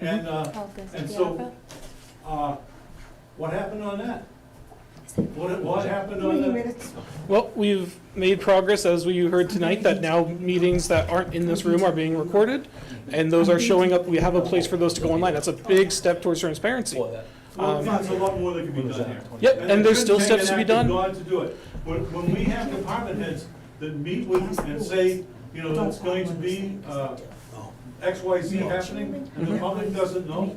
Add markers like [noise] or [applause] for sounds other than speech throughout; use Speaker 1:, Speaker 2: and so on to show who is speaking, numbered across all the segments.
Speaker 1: And, uh,
Speaker 2: Oh, goes to
Speaker 1: And
Speaker 2: the
Speaker 1: so-
Speaker 2: opera?
Speaker 1: uh, what happened on that? What, what happened on
Speaker 2: Three
Speaker 1: the,
Speaker 2: minutes.
Speaker 3: Well, we've made progress, as we you heard tonight, that now meetings that aren't in this room are being recorded, and those are showing up, we have a place for those to go online. That's a big step towards transparency.
Speaker 4: Well, that-
Speaker 1: well,
Speaker 3: um,
Speaker 1: there's a lot more that can be
Speaker 4: what was
Speaker 1: done
Speaker 4: that,
Speaker 1: here.
Speaker 4: 20?
Speaker 3: Yep, and there's
Speaker 1: it
Speaker 3: still
Speaker 1: shouldn't take
Speaker 3: steps to
Speaker 1: an
Speaker 3: be
Speaker 1: act of
Speaker 3: done.
Speaker 1: God to do it. When, when we have department heads that meet with and say, you know, it's going to be, uh, X, Y, Z happening, and the public doesn't know.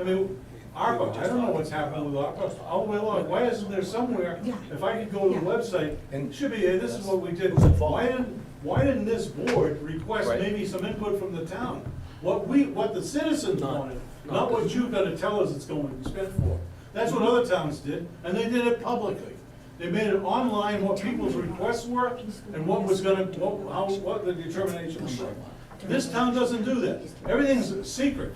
Speaker 1: I mean, ARPA, I don't know what's happened with ARPA all the way along. Why isn't there somewhere, if I could go to the website, it should be, hey, this is what we did. Why didn't, why didn't this board request
Speaker 4: Right.
Speaker 1: maybe some input from the town? What we, what the citizens
Speaker 4: Not-
Speaker 1: wanted,
Speaker 4: not Mm-hmm.
Speaker 1: not what
Speaker 4: this.
Speaker 1: you're gonna tell us it's going to be spent for. That's what other towns did, and they did it publicly. They made it online, what people's requests were, and what was gonna, what, how, what the determinations were. This town doesn't do that. Everything's secret.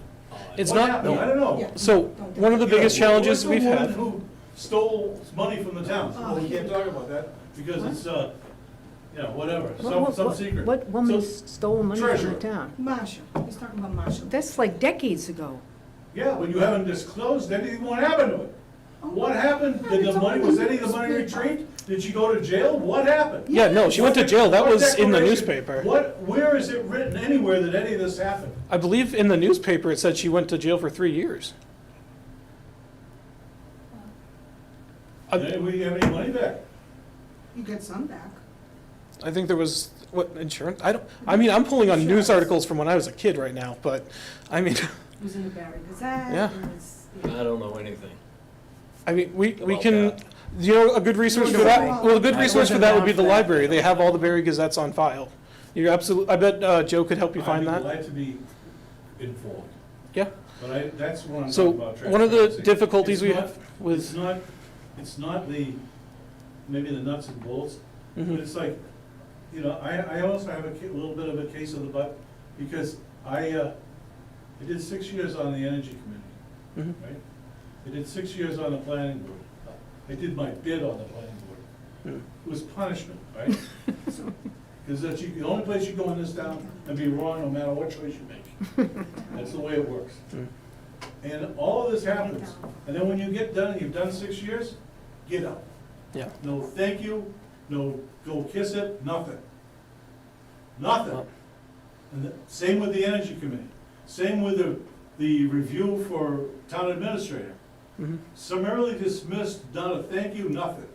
Speaker 3: It's
Speaker 1: What
Speaker 3: not,
Speaker 1: happened? I don't know.
Speaker 3: so, one of the biggest
Speaker 1: You know,
Speaker 3: challenges
Speaker 1: where's
Speaker 3: we've
Speaker 1: the
Speaker 3: had,
Speaker 1: woman who stole money from the town? Well, we can't talk about that, because it's, uh, you know, whatever, some,
Speaker 5: What-
Speaker 1: some
Speaker 5: what-
Speaker 1: secret.
Speaker 5: What woman
Speaker 1: So-
Speaker 5: stole money from
Speaker 1: Treasurer.
Speaker 5: the town?
Speaker 6: Marshall, he's talking about Marshall.
Speaker 5: That's like decades ago.
Speaker 1: Yeah, but you haven't disclosed anything what happened to it. What happened? Did the money, was any of the money retrieved? Did she go to jail? What happened?
Speaker 3: yeah, no, she went to jail, that
Speaker 1: What
Speaker 3: was in the
Speaker 1: declaration-
Speaker 3: newspaper.
Speaker 1: What, where is it written anywhere that any of this happened?
Speaker 3: I believe in the newspaper, it said she went to jail for three years. I, Uh,
Speaker 1: Did we have any money back?
Speaker 6: You get some back.
Speaker 3: I think there was, what, insurance? I don't, I mean, I'm pulling on news articles from when I was a kid right now, but, I mean, [laughs]
Speaker 6: It was in the Barry Gazette.
Speaker 3: Yeah.
Speaker 6: it was-
Speaker 4: I don't know anything.
Speaker 3: I mean, we, we
Speaker 4: About
Speaker 3: can,
Speaker 4: that.
Speaker 3: you know, a good resource for
Speaker 5: Either
Speaker 3: that,
Speaker 6: way.
Speaker 3: well, a good
Speaker 5: I
Speaker 3: resource for
Speaker 5: wasn't
Speaker 3: that would be
Speaker 5: around
Speaker 3: the
Speaker 5: for that.
Speaker 3: library, they have all the Barry Gazettes on file. You're absolutely, I bet, uh, Joe could help you find
Speaker 1: I'd be
Speaker 3: that,
Speaker 1: glad to be informed,
Speaker 3: yeah.
Speaker 1: but I, that's what I'm
Speaker 3: So,
Speaker 1: talking about.
Speaker 3: one of the
Speaker 1: transparency. It's
Speaker 3: difficulties we
Speaker 1: not-
Speaker 3: have with-
Speaker 1: It's not, it's not the, maybe the nuts and bolts, but
Speaker 3: Mhm.
Speaker 1: it's like, you know, I, I also have a ca- little bit of a case of the butt, because I, uh, I did six years on the energy committee,
Speaker 3: Mhm.
Speaker 1: right? I did six years on the planning board. I did my bid on the planning board.
Speaker 3: Mm.
Speaker 1: It was punishment, right? Because that's, you- the only place you go in this town and be wrong no matter what choice you make. That's the way it works.
Speaker 3: Mm.
Speaker 1: And all of this happens, and then when you get done, and you've done six years, get out.
Speaker 3: Yeah.
Speaker 1: No thank you, no go kiss it, nothing. Nothing.
Speaker 3: Well-
Speaker 1: And the, same with the energy committee, same with the, the review for town administrator.
Speaker 3: Mhm.
Speaker 1: Summarily dismissed, not a thank you, nothing.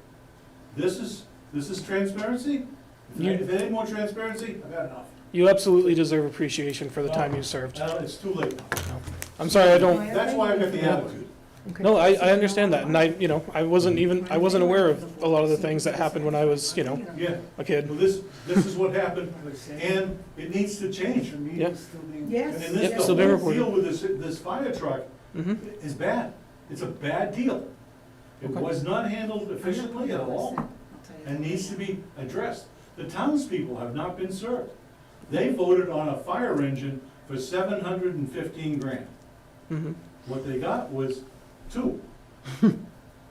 Speaker 1: This is, this is transparency? If I-
Speaker 3: You-
Speaker 1: If there ain't more transparency, I've had enough.
Speaker 3: You absolutely deserve appreciation for the time you served.
Speaker 1: Now, it's too late.
Speaker 3: I'm sorry, I don't,
Speaker 1: That's why I've got the attitude.
Speaker 3: no, I, I understand that, and I, you know, I wasn't even, I wasn't aware of a lot of the things that happened when I was, you know,
Speaker 1: Yeah,
Speaker 3: a kid.
Speaker 1: well, this, this is what happened, and it needs to change.
Speaker 3: Yeah.
Speaker 1: And
Speaker 6: Yes.
Speaker 3: Yep,
Speaker 1: this,
Speaker 3: so
Speaker 1: the
Speaker 3: they
Speaker 1: whole
Speaker 3: reported.
Speaker 1: deal with this, this fire truck
Speaker 3: Mhm.
Speaker 1: is bad. It's a bad deal. It
Speaker 3: Okay.
Speaker 1: was not handled efficiently at all
Speaker 6: I'll tell you.
Speaker 1: and needs to be addressed. The townspeople have not been served. They voted on a fire engine for seven hundred and fifteen grand.
Speaker 3: Mhm.
Speaker 1: What they got was
Speaker 3: [laughs]
Speaker 1: two.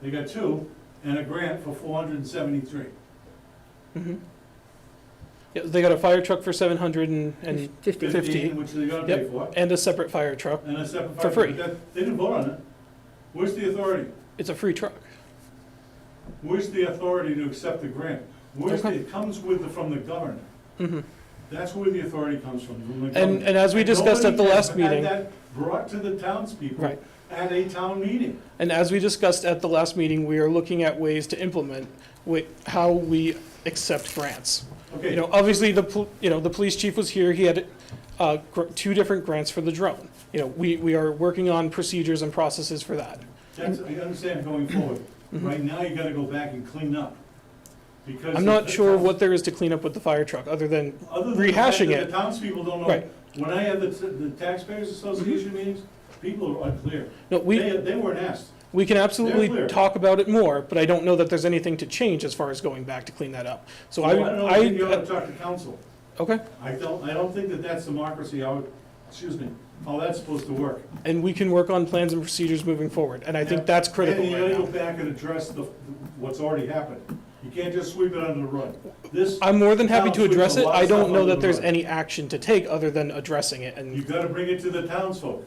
Speaker 1: They got two and a grant for four hundred and seventy-three.
Speaker 3: Mhm. Yeah, they got a fire truck for seven hundred and, and,
Speaker 5: Fifty.
Speaker 1: Fifteen, which they gotta pay
Speaker 3: Yep.
Speaker 1: for,
Speaker 3: and a separate fire truck.
Speaker 1: and a separate
Speaker 3: For
Speaker 1: fire.
Speaker 3: free.
Speaker 1: that- They didn't vote on it. Where's the authority?
Speaker 3: It's a free truck.
Speaker 1: Where's the authority to accept the grant? Where's, the-
Speaker 3: Okay.
Speaker 1: it comes with, the- from the governor.
Speaker 3: Mhm.
Speaker 1: That's where the authority comes from, from the
Speaker 3: And,
Speaker 1: governor.
Speaker 3: and as we discussed at the
Speaker 1: Nobody has
Speaker 3: last meeting,
Speaker 1: had that brought to the townspeople
Speaker 3: Right.
Speaker 1: at a town meeting.
Speaker 3: and as we discussed at the last meeting, we are looking at ways to implement wi- how we accept grants. You
Speaker 1: Okay,
Speaker 3: know, obviously, the, pol- you know, the police chief was here, he had uh, gr- two different grants for the drone. You know, we, we are working on procedures and processes for that.
Speaker 1: that's, I understand going forward. Right now, you gotta go back and clean up. Because
Speaker 3: Mm-hmm. I'm
Speaker 1: the-
Speaker 3: not
Speaker 1: the
Speaker 3: sure
Speaker 1: towns-
Speaker 3: what there is to clean up with the fire truck, other than,
Speaker 1: Other than the fact
Speaker 3: rehashing
Speaker 1: that
Speaker 3: it.
Speaker 1: The townspeople don't know.
Speaker 3: Right.
Speaker 1: When I had the, the taxpayers association meetings, people are unclear.
Speaker 3: no, we,
Speaker 1: They, they weren't asked.
Speaker 3: we can
Speaker 1: They're
Speaker 3: absolutely
Speaker 1: clear.
Speaker 3: talk about it more, but I don't know that there's anything to change as far as going back to clean that up. So I,
Speaker 1: don't know, I think you ought
Speaker 3: I,
Speaker 1: to talk to council.
Speaker 3: okay,
Speaker 1: I don't, I don't think that that's democracy, I would, excuse me, how that's supposed to work.
Speaker 3: and we can work on plans and procedures moving forward, and I think that's critical
Speaker 1: And you gotta go
Speaker 3: right now.
Speaker 1: back and address the, what's already happened. You can't just sweep it under the rug. This,
Speaker 3: I'm more than happy to
Speaker 1: Sounds like
Speaker 3: address
Speaker 1: a
Speaker 3: it,
Speaker 1: lot of
Speaker 3: I
Speaker 1: stuff
Speaker 3: don't know
Speaker 1: under
Speaker 3: that
Speaker 1: the
Speaker 3: there's
Speaker 1: rug.
Speaker 3: any action to take other than addressing it, and
Speaker 1: you gotta bring it to the townsfolk.